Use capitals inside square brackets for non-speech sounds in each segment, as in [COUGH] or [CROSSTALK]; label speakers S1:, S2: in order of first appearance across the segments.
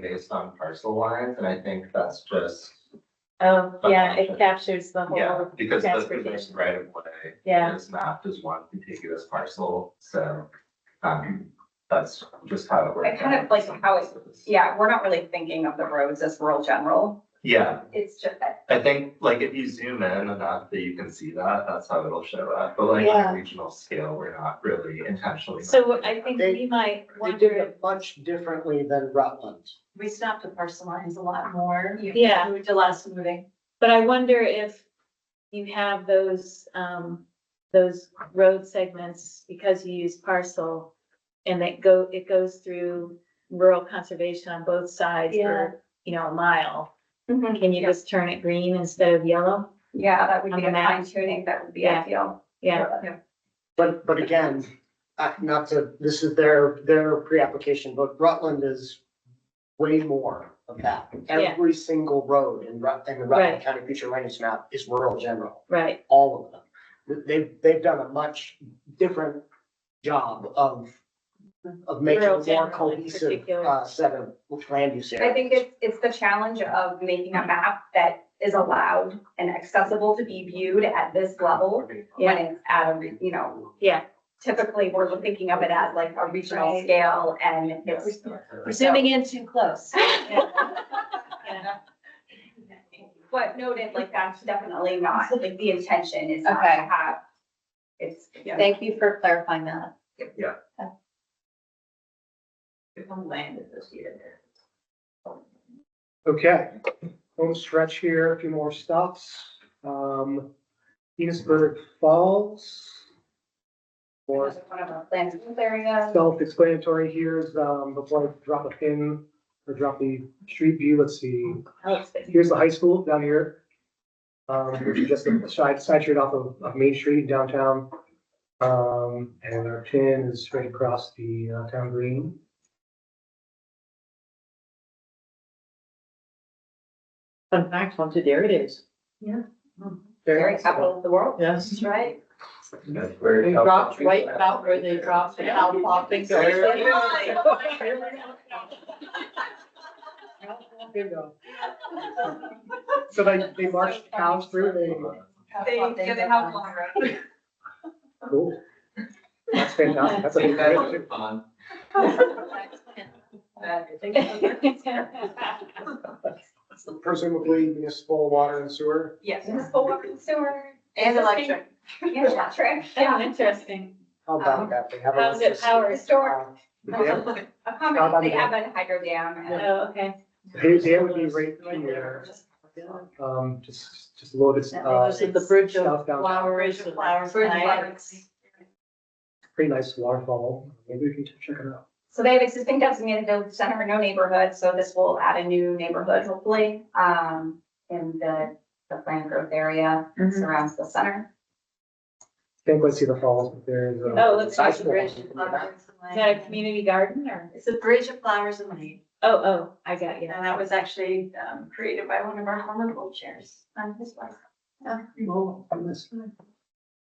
S1: based on parcel lines, and I think that's just,
S2: Oh, yeah,
S1: Okay.
S2: it captures the
S1: yeah,
S2: whole
S1: because the
S2: transportation.
S1: position right of way
S2: Yeah,
S1: is mapped as one contiguous parcel, so, um, that's just how it works.
S3: I kind of like how it- Yeah, we're not really thinking of the roads as rural general.
S1: Yeah,
S3: It's just,
S1: I think, like, if you zoom in enough that you can see that, that's how it'll show up, but like,
S2: Yeah.
S1: on a regional scale, we're not really intentionally.
S2: so I think
S4: They-
S2: we might
S4: They did
S2: wonder,
S4: it much differently than Rutland.
S5: We stopped at parcel lines a lot more. You
S2: Yeah.
S5: Moved to last moving.
S2: but I wonder if you have those, um, those road segments because you use parcel. And that go, it goes through rural conservation on both sides
S5: Yeah.
S2: for, you know, a mile.
S3: Mhm.
S2: Can you just turn it green instead of yellow?
S3: yeah, that would
S2: Mm-hmm. On
S3: be
S2: the
S3: a
S2: map.
S3: fine tuning, that would be
S2: Yeah.
S3: ideal.
S2: Yeah,
S4: But, but again, I, not to, this is their, their pre-application, but Rutland is way more of that. Every single road in Rut, in the
S2: Right.
S4: Rutland County Future Land Use Map is rural general,
S2: right,
S4: all of them. They've, they've done a much different job of, of making
S2: Rural
S4: a more
S2: general in
S4: cohesive,
S2: particular.
S4: uh, set of land use areas.
S3: I think it's, it's the challenge of making a map that is allowed and accessible to be viewed at this level when it's at a, re- you know.
S2: Yeah.
S3: Typically, we're thinking of it as like a regional
S5: Right.
S3: scale and it's,
S5: We're zooming in too close.
S3: but noted, like that's definitely not, like the intention is not to
S5: Okay.
S3: have. It's, yeah,
S5: Thank you for clarifying that.
S1: Yeah.
S5: I'm landed this year.
S6: Okay, home stretch here, a few more stops. Um, Enosburg Falls.
S3: one
S6: Or
S3: of our plans areas.
S6: self-explanatory here is, um, before I drop a pin or drop the street view, let's see.
S2: [LAUGHS]
S6: Here's the high school down here. Um, which is just a side, side street off of, of Main Street downtown. Um, and our pin is straight across the uh, town green.
S7: Fun fact, once a dairy days,
S3: very capital of the world.
S7: yes.
S5: That's right.
S7: They dropped right about where they dropped the cow pop and
S1: Very-
S7: go.
S6: So they, they marched cows through, they,
S3: They, yeah, they have long roads.
S6: cool. That's fantastic, that's a
S1: Think
S6: great-
S1: that would be fun.
S4: Presumably municipal water and sewer.
S3: [LAUGHS] Yes, municipal water and sewer.
S5: And electric.
S3: Yeah,
S5: [LAUGHS]
S3: electric,
S2: Oh, [LAUGHS]
S3: yeah.
S2: interesting.
S4: How about that? They have a
S2: How's Um, it
S4: list of-
S2: powered?
S3: Historic,
S6: Um, Dam-
S3: a common, they have a hydro dam and.
S2: Oh, okay.
S6: There, there would be right here, um, just, just loaded.
S5: That
S6: uh,
S5: was
S7: The bridge
S6: stuff
S7: of
S6: down-
S7: flowers.
S5: Bridge of flowers.
S7: Bridge of
S5: Nice.
S6: Pretty nice waterfall, maybe we can check it out.
S3: So they have existing designated village center, no neighborhood, so this will add a new neighborhood hopefully, um, in the, the planned growth area
S2: Mhm.
S3: surrounds the center.
S6: Can't quite see the falls, but there's. a-
S2: Oh, it looks like a
S6: Sizable.
S2: bridge. Is that a community garden or?
S5: It's a bridge of flowers and money.
S2: Oh, oh, I got you.
S5: And that was actually um, created by one of our former board chairs Um, on his wife.
S6: Oh, I missed.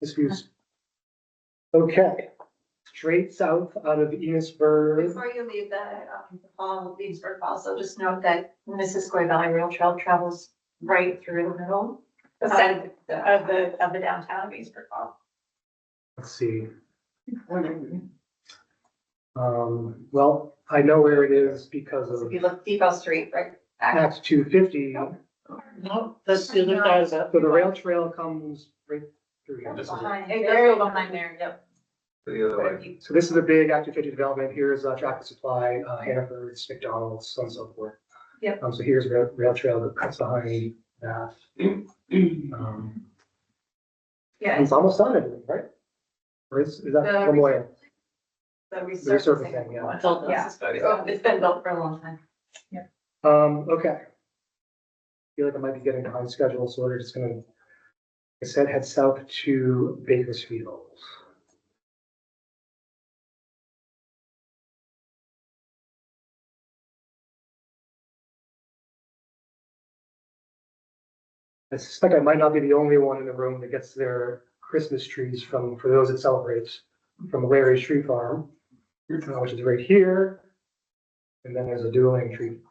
S6: This view's. Okay, straight south out of Enosburg,
S5: Before you leave the, um, the fall, Leesburg Falls, so just note that Missisquoi Valley Rail Trail travels right through the middle
S3: The
S5: of
S3: center,
S5: the, of the, of the downtown Leesburg Falls.
S6: let's see,
S3: Oh.
S6: um, well, I know where it is because
S3: if
S6: of
S3: you look Depot Street, right? back-
S6: Act two fifty.
S7: No, that's the other side of that.
S6: So the rail trail comes right through here.
S1: This is-
S5: Behind,
S2: It
S5: very
S2: goes
S5: behind there, yep.
S1: The other way.
S6: So this is a big Act 250 development. Here's uh, Tractor Supply, uh, Hannaford, McDonald's, so on and so forth.
S5: Yep.
S6: Um, so here's rail, rail trail that cuts behind that. Um,
S5: Yeah,
S6: It's almost done, I believe, right? Or is, is that
S5: The
S6: one way?
S5: the
S6: The resurfacing,
S5: resurfacing.
S6: yeah.
S7: It's all
S5: Yeah.
S7: necessary.
S5: Oh, It's been built for a long time.
S6: Um, okay. Feel like I might be getting behind schedule, so we're just gonna, like I said, head south to Bakersfield. I suspect I might not be the only one in the room that gets their Christmas trees from, for those that celebrate, from Larry's Tree Farm, uh, which is right here. And then there's a dueling tree